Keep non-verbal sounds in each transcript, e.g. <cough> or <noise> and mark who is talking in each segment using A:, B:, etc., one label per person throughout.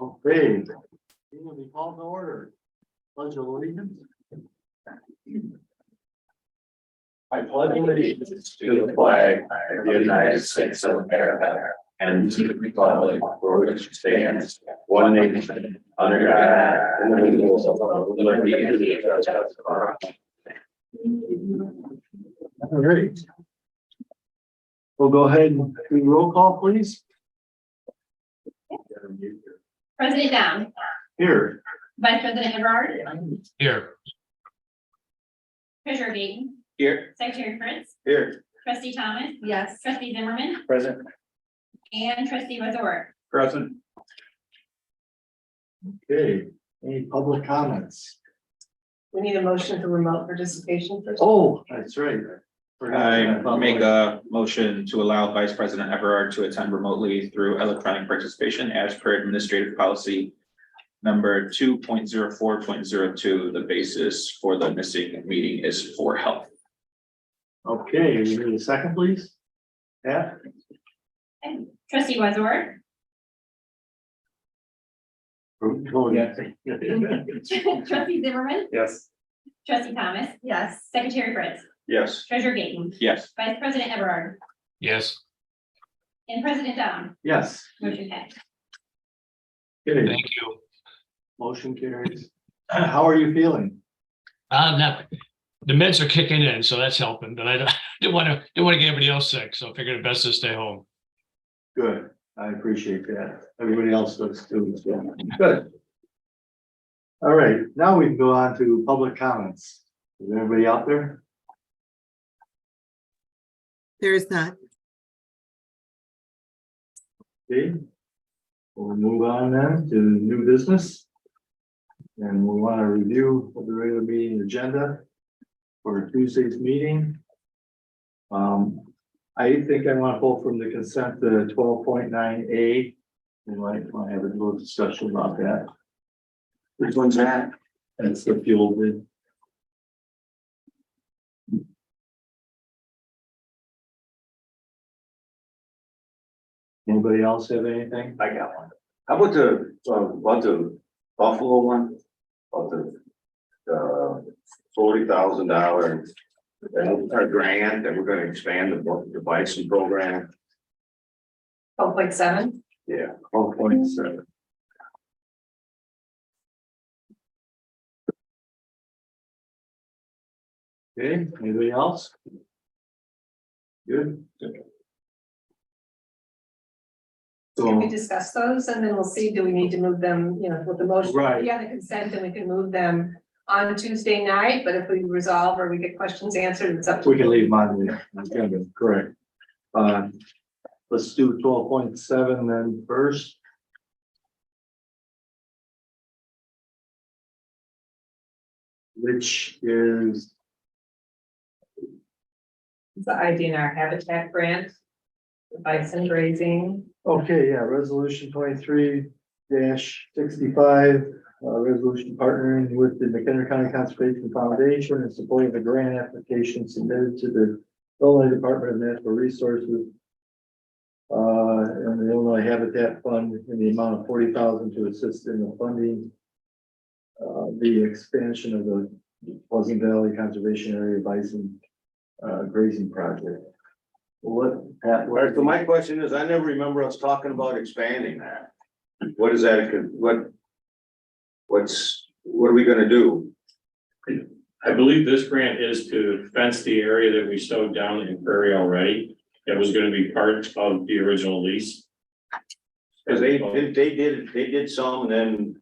A: Okay. Meeting will be called to order. Pledge of allegiance.
B: I pledge allegiance to the flag of the United States of America and to the republic for which it stands, one nation, under God, indivisible, with liberty and justice for all.
A: All right. We'll go ahead and do roll call, please.
C: President Down,
A: Here.
C: Vice President Everard,
D: Here,
C: Treasurer Gaten,
B: Here.
C: Secretary Prince,
B: Here.
C: Trustee Thomas. Yes. Trustee Zimmerman
B: Present.
C: and Trustee Wazor.
B: Present.
A: Okay, any public comments?
E: We need a motion for remote participation first.
A: Oh, that's right.
F: I make a motion to allow Vice President Everard to attend remotely through electronic participation as per administrative policy number two point zero four point zero two. The basis for the missing meeting is for health.
A: Okay, you need a second, please? Yeah,
C: Trustee Wazor, <laughs>
A: <laughs>
C: Trustee Zimmerman,
A: Yes.
C: Trustee Thomas,
E: Yes.
C: Secretary Prince,
B: Yes.
C: Treasurer Gaten,
F: Yes.
C: Vice President Everard,
D: yes,
C: and President Down.
A: Yes.
C: Motion passed.
A: Okay,
D: thank you.
A: motion carries. How are you feeling?
D: Uh, now, the meds are kicking in, so that's helping, but I don't, <laughs> didn't want to, didn't want to get everybody else sick, so I figured it best to stay home.
A: Good, I appreciate that. Everybody else does too, so, good. All right, now we can go on to public comments. Is there anybody out there?
G: There is not.
A: Okay. We'll move on then to new business. And we want to review of the regular meeting agenda for Tuesday's meeting. Um, I think I want to pull from the consent to twelve point nine A. We might want to have a little discussion about that.
B: Which one's that?
A: That's the fuel bid. Anybody else have anything?
B: I got one. How about the, about the Buffalo one? About the, the forty thousand dollar grant that we're gonna expand the, the bison program?
E: Oh, point seven?
B: Yeah, twelve point seven.
A: Okay, anybody else? Good.
E: Can
A: So,
E: we discuss those and then we'll see, do we need to move them, you know, with the motion?
A: Right.
E: Be on the consent and we can move them on Tuesday night, but if we resolve or we get questions answered, it's up to.
A: we can leave mine there, that's gonna be correct. Uh, let's do twelve point seven then first. Which is
E: It's The IDNR Habitat Grant. the Bison grazing.
A: Okay, yeah, resolution twenty-three sixty-five, uh, resolution partnering with the McHenry County Conservation Foundation and supporting the grant application submitted to the Illinois Department of Natural Resources. Uh, and the Illinois Habitat Fund in the amount of forty thousand to assist in the funding. Uh, the expansion of the Pleasant Valley Conservation Area Bison, uh, grazing project. What, Pat, what-
B: Alright, so my question is, I never remember us talking about expanding that. What is that, what? What's, what are we gonna do?
H: I believe this grant is to fence the area that we sowed down in Prairie already. That was gonna be part of the original lease.
B: Cause they, did- they did, they did some and then.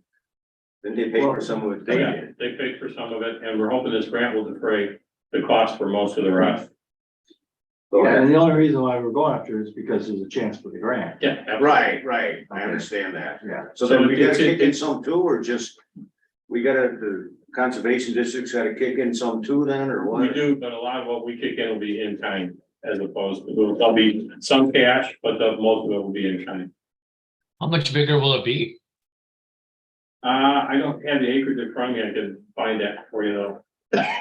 B: Then they paid for some of it, they
H: Oh, Yeah,
B: did.
H: They paid for some of it, and we're hoping this grant will defray the cost for most of the rest.
B: So-
A: Yeah, and the only reason why we're going after it is because there's a chance for the grant.
H: Yeah. absolutely.
F: Right, right.
B: I understand that.
A: Yeah.
B: So then
H: So
B: we gotta
H: it's-
B: kick in some too, or just? We gotta, the conservation district's gotta kick in some too then, or what?
H: We do, but a lot of what we kick in will be in kind as opposed to, there'll be some cash, but the most of it will be in kind.
D: How much bigger will it be?
H: Uh, I don't have the acreage in front of me, I can find that for you though.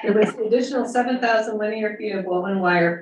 E: It was additional seven thousand linear feet of woven wire